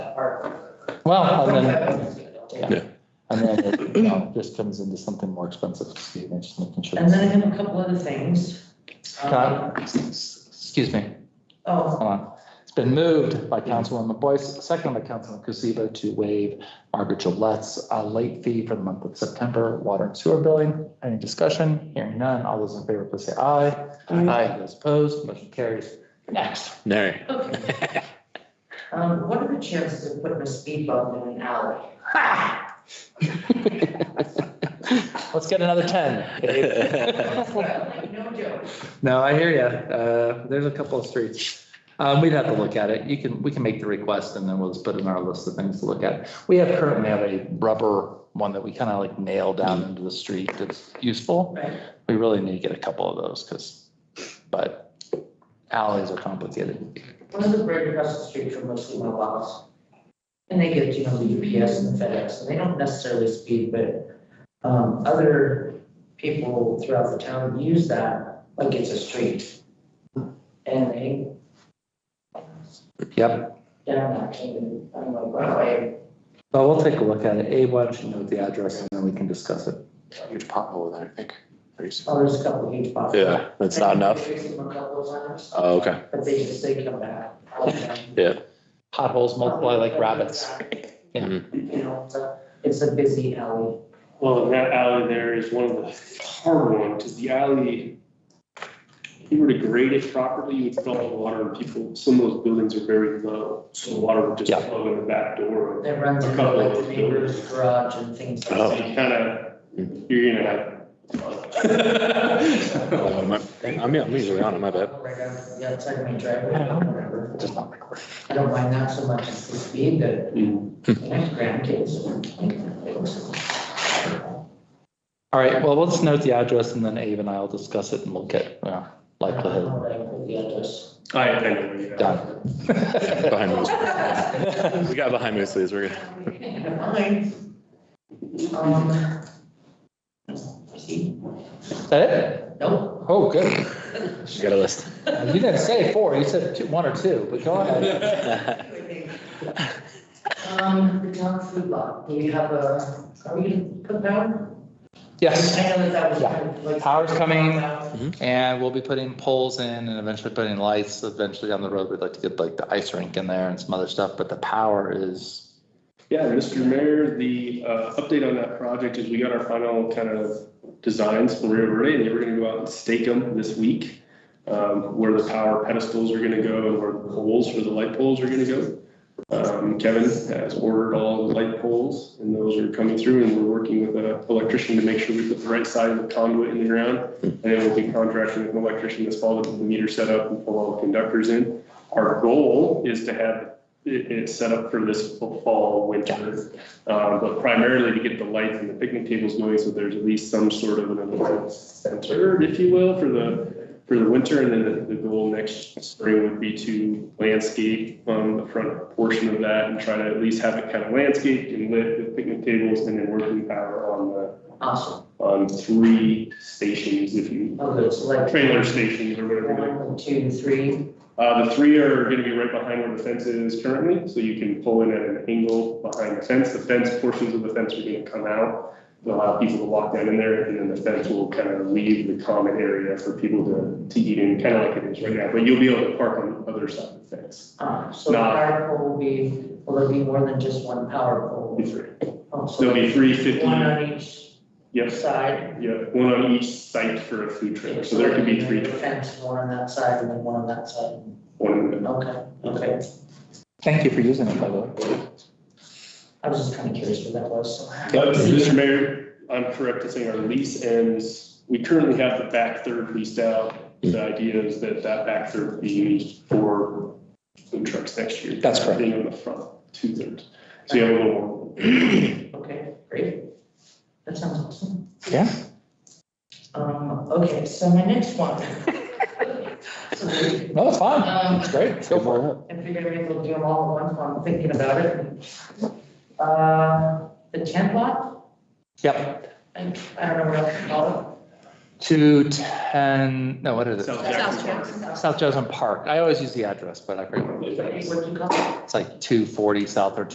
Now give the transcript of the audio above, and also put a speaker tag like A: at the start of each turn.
A: that part.
B: Well, Oh, and then,
A: And
B: yeah. and then it, you know, just comes into something more expensive, Steve, and just making sure.
A: then I have a couple other things. Um,
B: Scott, Excuse me,
A: Oh,
B: hold on. It's been moved by Councilwoman Boyce, second by Councilman Kuzeba to waive Margaret Gillette's uh, late fee for the month of September, water and sewer billing. Any discussion? Hearing none. All those in favor, please say aye. Aye. Those opposed, motion carries. Next.
C: No.
A: okay. Um, what are the chances of putting a speed bump in an alley?
B: Let's get another ten. Dave.
A: Like, No joke.
B: No, I hear you. Uh, there's a couple of streets. Um, we'd have to look at it. You can, we can make the request and then we'll just put it in our list of things to look at. We have currently have a rubber one that we kind of like nail down into the street that's useful.
A: Right.
B: We really need to get a couple of those because, but alleys are complicated.
A: One of the bridge across the street from mostly my boss. And they get, you know, the UPS and the FedEx, and they don't necessarily speed, but, um, other people throughout the town use that like it's a street. And they
B: Yep,
A: down that, and I'm like, wow, I,
B: but we'll take a look at it. Abe, why don't you note the address and then we can discuss it.
C: Huge pothole there, I think. Pretty-
A: oh, there's a couple of huge boxes.
C: Yeah, that's not enough.
A: I fixed them a couple of times,
C: Oh, okay.
A: but they just, they come back. Um,
B: Potholes multiply like rabbits. Yeah.
A: You know, it's a, it's a busy alley.
D: Well, and that alley there is one of the hard ones, because the alley, if you were to grade it properly, you would fill up with water and people, some of those buildings are very low, so water would just
B: Yeah.
D: flow in the back door.
A: That runs
D: A
A: into
D: couple
A: like
D: of
A: the neighbor's garage and things like
C: Oh.
D: So
A: that.
D: you kind of, you're gonna have.
C: Oh, my- I'm, I'm usually on it, my bad.
A: Right down to the outside of my driveway, or whatever.
B: Just not like we're-
A: I don't mind that so much as the speed that my grandkids.
B: All right, well, we'll just note the address and then Abe and I will discuss it and we'll get uh, likelihood.
D: I, I know where you're at.
B: Done.
C: Yeah, Behind Mosley. We got behind Mosley's, we're good.
A: Mine. Um. See,
B: Is that it?
A: nope.
B: Oh, good.
C: We got a list.
B: You didn't say four, you said two, one or two, but go ahead.
A: Um, the town food lot, do you have a, are we gonna put down?
B: Yes,
A: I know that that was.
B: Yeah.
A: kind of like-
B: Power's coming. and we'll be putting poles in and eventually putting lights eventually down the road. We'd like to get like the ice rink in there and some other stuff, but the power is,
D: Yeah, Mr. Mayor, the uh, update on that project is we got our final kind of designs from Rio Verde. They were gonna go out and stake them this week. um, Where the power pedestals are gonna go and where the poles for the light poles are gonna go. Um, Kevin has ordered all the light poles and those are coming through and we're working with an electrician to make sure we put the right side of the conduit in the ground. And then we'll be contracting with an electrician this fall to put the meter set up and pull all the conductors in. Our goal is to have it, it's set up for this fall, winter. Uh, but primarily to get the lights and the picnic tables going, so there's at least some sort of an event center, if you will, for the, for the winter. And then the, the goal next spring would be to landscape, um, the front portion of that and try to at least have it kind of landscaped and lit with picnic tables and then working power on the,
A: Awesome,
D: on three stations, if you,
A: oh, good, so like.
D: trailer stations or whatever. they're
A: One, two, three,
D: uh, the three are gonna be right behind where the fence is currently, so you can pull in at an angle behind the fence. The fence, portions of the fence are gonna come out. to allow people to walk down in there, and then the fence will kind of leave the common area for people to, to eat in, kind of like it is right now. But you'll be able to park on the other side of the fence.
A: uh, so the
D: Nah.
A: power pole will be, will there be more than just one power pole?
D: Be free.
A: Oh,
D: So
A: so
D: There'll be three fifty,
A: One on each
D: yep,
A: side.
D: yep, one on each site for a food trailer, so there could be three,
A: Fence, one on that side and then one on that side,
D: one in the middle.
A: okay, okay,
B: thank you for using it, by the way.
A: I was just kind of curious what that was, so.
D: But, Mr. Mayor, I'm correct in saying our lease ends, we currently have the back third leased out. The idea is that that back third be used for food trucks next year.
B: That's correct.
D: Being on the front, two thirds. So you have a little more.
A: Okay, great. That sounds awesome.
B: Yeah.
A: Um, okay, so my next one. Sorry.
B: No, it's fine.
A: Um,
B: It's great. Go for it.
A: I figured maybe we'll do them all at once while I'm thinking about it. Uh, the tent lot,
B: Yep.
A: I I don't know what else to call
B: Two ten, no, what is
D: South
B: it?
D: Jackson Park.
B: South Johnson Park. I always use the address, but I forget. what it is.
A: What do you call it?
B: It's like two forty south or